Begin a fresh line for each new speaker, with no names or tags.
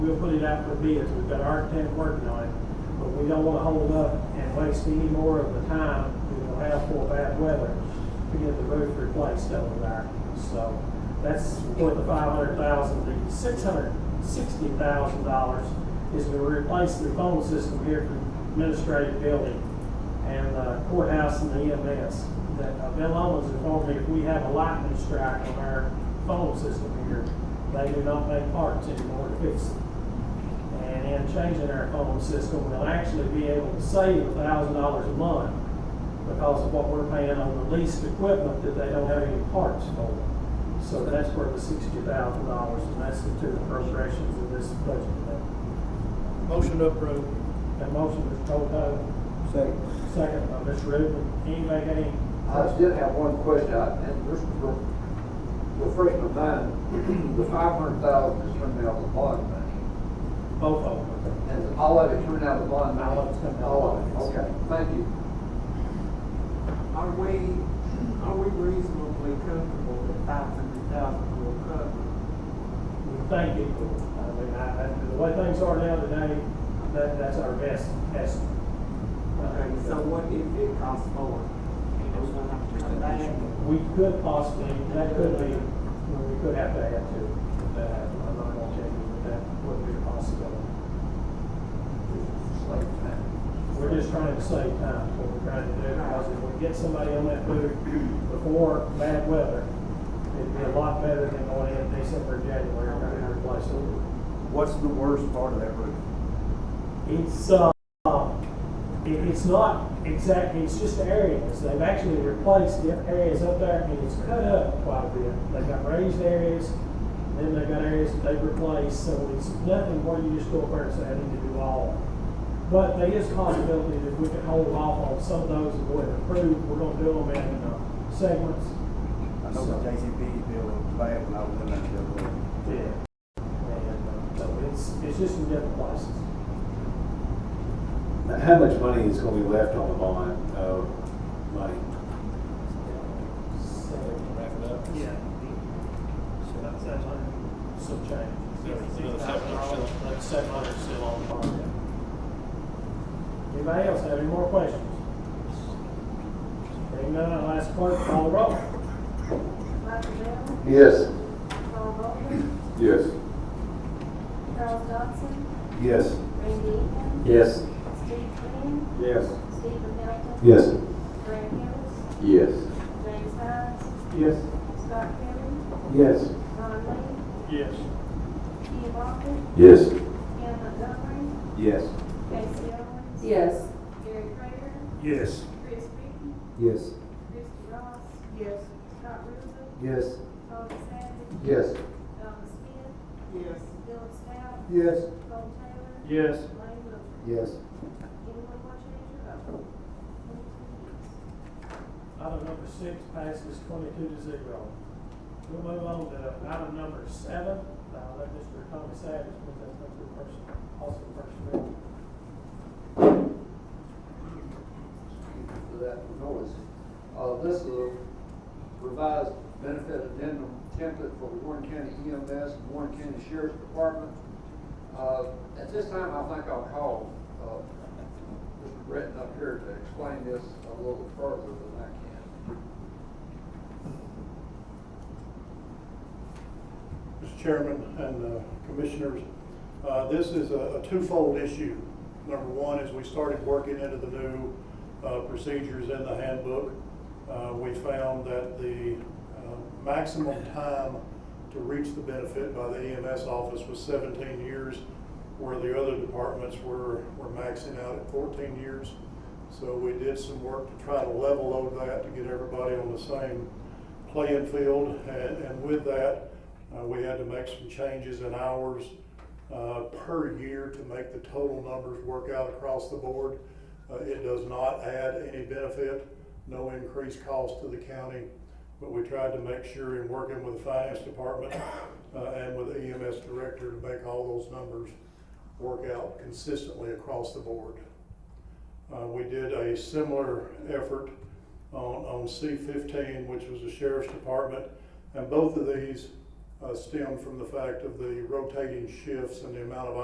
We'll put it out for bids, we've got an architect working on it, but we don't wanna hold up and waste any more of the time we will have for bad weather to get the roof replaced over there. So that's where the five hundred thousand, the six hundred sixty thousand dollars is to replace the phone system here for administrative building and uh, courthouse and the EMS. That uh, Bill Owens informed me if we have a lightning strike on our phone system here, they do not make parts anymore to fix it. And in changing our phone system, we'll actually be able to save a thousand dollars a month because of what we're paying on the leased equipment that they don't have any parts for. So that's where the sixty thousand dollars, and that's the two appropriations of this budget.
Motion to approve.
That motion, Mr. Colco,
Second.
second by Mr. Rubin. Anybody got any
I still have one question, I- and this is re- refresh my mind. The five hundred thousand is coming out of the bond money,
Both of them.
and all of it coming out of the bond money?
All of it's coming out of
All of it,
the bond.
okay, thank you.
Are we, are we reasonably comfortable that five hundred thousand will cover?
We thank you. I mean, I, I, the way things are now today, that, that's our best estimate.
Okay, so what if it costs more? Are we gonna have to come back?
We could possibly, that could be, we could have to add to that. I'm not gonna tell you that that would be a possibility.
Slate time.
We're just trying to save time, is what we're trying to do, because if we get somebody on that booth before bad weather, it'd be a lot better than going in December, January, trying to replace it.
What's the worst part of that roof?
It's, uh, it, it's not exactly, it's just areas, they've actually replaced the areas up there, and it's cut up quite a bit. They've got raised areas, then they've got areas that they've replaced, so it's nothing where you just go up there and say, I need to do all. But there is a possibility that we could hold off on some of those that were approved, we're gonna do them in, uh, segments.
I know the JCP building was bad when I was in that building.
Yeah. And, uh, so it's, it's just in different places.
How much money is gonna be left on the bond, uh, money?
So,
Wrap it up.
Yeah.
some change.
Another $700 still.
Like seven hundred still on the bond. Anybody else have any more questions? Hearing none, I'll ask clerk to call the roll.
Michael Bell,
Yes.
Paul Robeson,
Yes.
Charles Dodson,
Yes.
Randy England,
Yes.
Steve Quinn,
Yes.
Stephen Hilton.
Yes.
Greg Gillis,
Yes.
James Hines,
Yes.
Scott Kelly,
Yes.
Ron
Yes.
Lee, Ian Walker,
Yes.
Cam Montgomery,
Yes.
Casey Owens.
Yes.
Gary Prater,
Yes.
Chris Reapy,
Yes.
Christie Ross,
Yes.
Scott Rutherford,
Yes.
Tony Savage,
Yes.
Donna Smith,
Yes.
Philip Stout,
Yes.
Cole Taylor,
Yes.
Lane Wilcher.
Yes.
Anyone want to change your vote? Twenty-two yes.
Item number six passes twenty-two to zero. We'll move on to item number seven. I'll let Mr. Tommy Savage put that up to person, also personnel.
for that noise. Uh, this is a revised benefit addendum template for Warren County EMS and Warren County Sheriff's Department. Uh, at this time, I think I'll call, uh, Mr. Breton up here to explain this a little further than I can.
Mr. Chairman and uh, Commissioners, uh, this is a a twofold issue. Number one is we started working into the new uh, procedures in the handbook. Uh, We found that the uh, maximum time to reach the benefit by the EMS office was 17 years, where the other departments were were maxing out at 14 years. So we did some work to try to level load that, to get everybody on the same playing field. And and with that, uh, we had to make some changes in hours uh, per year to make the total numbers work out across the board. Uh, It does not add any benefit, no increased cost to the county, but we tried to make sure in working with the finance department uh, and with the EMS director to make all those numbers work out consistently across the board. Uh, We did a similar effort on, on C fifteen, which was the sheriff's department, and both of these uh, stemmed from the fact of the rotating shifts and the amount of